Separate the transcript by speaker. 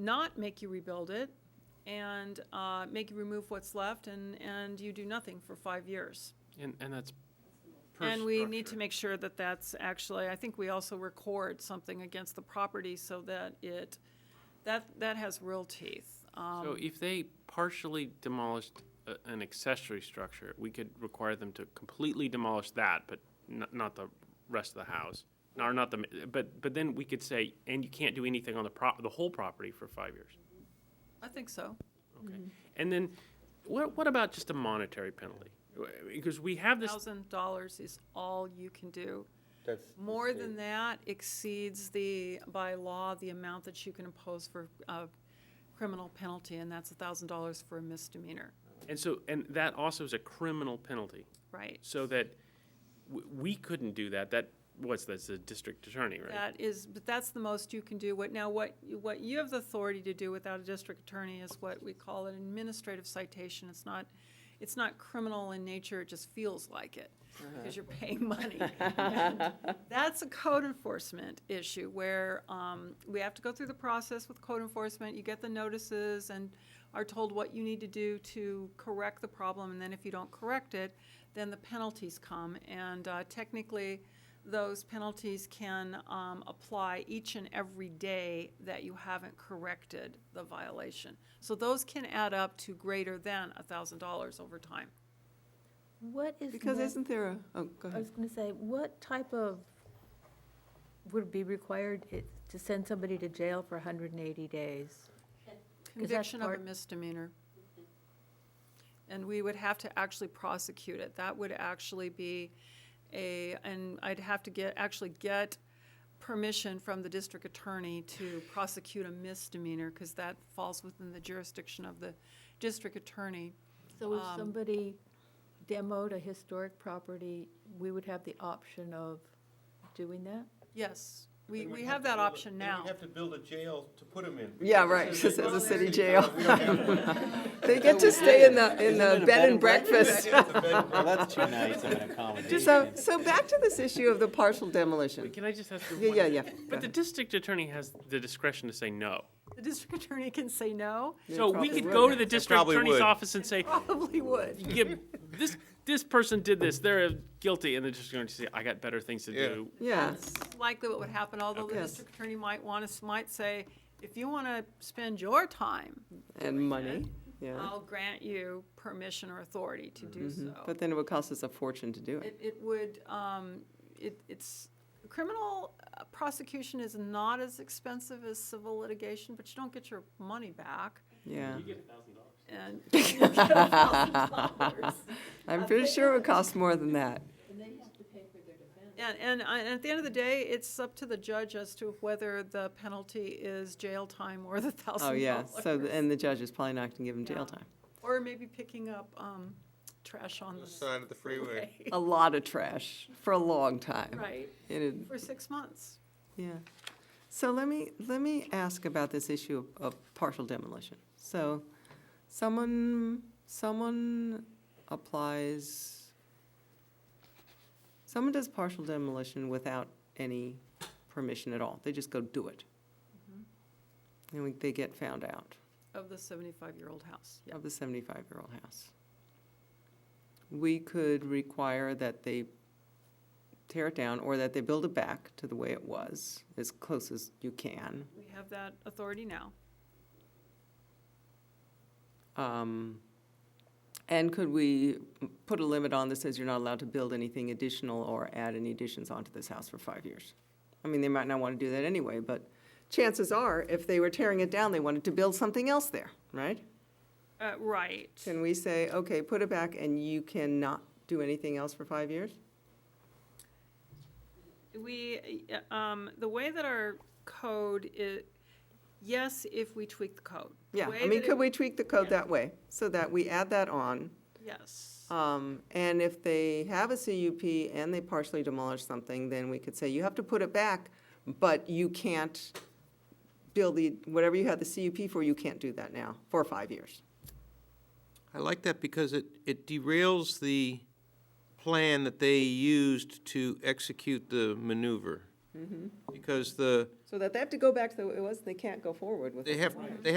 Speaker 1: not make you rebuild it and uh, make you remove what's left and, and you do nothing for five years.
Speaker 2: And, and that's per
Speaker 1: And we need to
Speaker 2: structure.
Speaker 1: make sure that that's actually, I think we also record something against the property so that it, that, that has real teeth. Um,
Speaker 2: So if they partially demolished a- an accessory structure, we could require them to completely demolish that, but not, not the rest of the house. Or not the, ma- but, but then we could say, and you can't do anything on the prop, the whole property for five years.
Speaker 1: I think so.
Speaker 2: Okay.
Speaker 1: Mm-hmm.
Speaker 2: And then, what, what about just a monetary penalty? Because we have this,
Speaker 1: Thousand dollars is all you can do.
Speaker 3: That's.
Speaker 1: More than that exceeds the, by law, the amount that you can impose for a criminal penalty, and that's a thousand dollars for a misdemeanor,
Speaker 2: and so, and that also is a criminal penalty.
Speaker 1: right?
Speaker 2: So that w- we couldn't do that. That what's that's the district attorney, right?
Speaker 1: That is, but that's the most you can do. What, now, what, you- what you have the authority to do without a district attorney is what we call an administrative citation. It's not, it's not criminal in nature, it just feels like it, because you're paying money. And That's a code enforcement issue where, um, we have to go through the process with code enforcement. You get the notices and are told what you need to do to correct the problem, and then if you don't correct it, then the penalties come. And, uh, technically, those penalties can um, apply each and every day that you haven't corrected the violation. So those can add up to greater than $1,000 over time.
Speaker 4: What is
Speaker 5: Because
Speaker 4: the,
Speaker 5: isn't there a, oh,
Speaker 4: I
Speaker 5: go ahead.
Speaker 4: was gonna say, what type of, would be required it- to send somebody to jail for hundred and eighty days? Is that
Speaker 1: Conviction of a
Speaker 4: part-
Speaker 1: misdemeanor. And we would have to actually prosecute it. That would actually be a, and I'd have to get, actually get permission from the district attorney to prosecute a misdemeanor because that falls within the jurisdiction of the district attorney.
Speaker 4: So if
Speaker 1: Um,
Speaker 4: somebody demoed a historic property, we would have the option of doing that?
Speaker 1: Yes, we, we have that option now.
Speaker 3: we have to build a jail to put them in.
Speaker 5: Yeah, right, because it's a city jail. They get to stay in the, in the bed and breakfast.
Speaker 6: Well, that's too nice of an accommodation.
Speaker 5: So, so back to this issue of the partial demolition.
Speaker 2: Can I just ask you?
Speaker 5: Yeah,
Speaker 2: one-
Speaker 5: yeah, yeah.
Speaker 2: But the district attorney has the discretion to say no.
Speaker 1: The district attorney can say no,
Speaker 2: So we
Speaker 5: probably
Speaker 2: could
Speaker 5: would.
Speaker 2: go to the district
Speaker 6: probably
Speaker 2: attorney's
Speaker 6: would.
Speaker 2: office and say,
Speaker 1: probably would.
Speaker 2: "Yeah, this, this person did this, they're guilty, and the district attorney say, I got better things to
Speaker 3: Yeah.
Speaker 2: do.
Speaker 5: Yeah,
Speaker 1: That's Likely what would happen, although the
Speaker 5: Okay. Yes.
Speaker 1: district attorney might want to, might say, if you want to spend your time,
Speaker 5: and money, yeah. Mm-hmm.
Speaker 1: I'll grant you permission or authority to do Oh, so.
Speaker 5: But then it would cost us a fortune to do it.
Speaker 1: It, it would, um, it, it's, criminal uh, prosecution is not as expensive as civil litigation, but you don't get your money back.
Speaker 5: Yeah.
Speaker 1: And you get $1,000.
Speaker 5: I'm pretty sure it would cost more than that.
Speaker 4: And they have to pay for their defense.
Speaker 1: And, and, I- and at the end of the day, it's up to the judge as to whether the penalty is jail time or the thousand
Speaker 5: Oh,
Speaker 1: dollars.
Speaker 5: yeah, so, the- and the judge is probably not going to give him
Speaker 1: Yeah.
Speaker 5: jail time.
Speaker 1: Or maybe picking up, um, trash on the.
Speaker 3: Side of the freeway.
Speaker 5: A lot of trash for a long time.
Speaker 1: Right,
Speaker 5: It'd-
Speaker 1: for six months.
Speaker 5: Yeah. So let me, let me ask about this issue of- of partial demolition. So someone, someone applies, someone does partial demolition without any permission at all. They just go do it. And we- they get found out
Speaker 1: Of the seventy-five-year-old house, yeah.
Speaker 5: of the 75-year-old house. We could require that they tear it down or that they build it back to the way it was, as close as you can.
Speaker 1: We have that authority now.
Speaker 5: Um, And could we put a limit on that says you're not allowed to build anything additional or add any additions onto this house for five years? I mean, they might not want to do that anyway, but chances are, if they were tearing it down, they wanted to build something else there, right?
Speaker 1: Uh, right.
Speaker 5: Can we say, okay, put it back and you cannot do anything else for five years?
Speaker 1: We, uh, um, the way that our code is, yes, if we tweak the code. The
Speaker 5: Yeah,
Speaker 1: way
Speaker 5: I mean,
Speaker 1: that
Speaker 5: could
Speaker 1: it-
Speaker 5: we tweak the code
Speaker 1: yeah.
Speaker 5: that way, so that we add that on?
Speaker 1: Yes,
Speaker 5: Um, and if they have a CUP and they partially demolish something, then we could say, you have to put it back, but you can't build the, whatever you had the CUP for, you can't do that now, for five years.
Speaker 6: I like that because it, it derails the plan that they used to execute the maneuver. Because the,
Speaker 5: Mm-hmm. So that they have to go back to the way it was, they can't go forward with
Speaker 6: they
Speaker 5: it.
Speaker 6: have, they have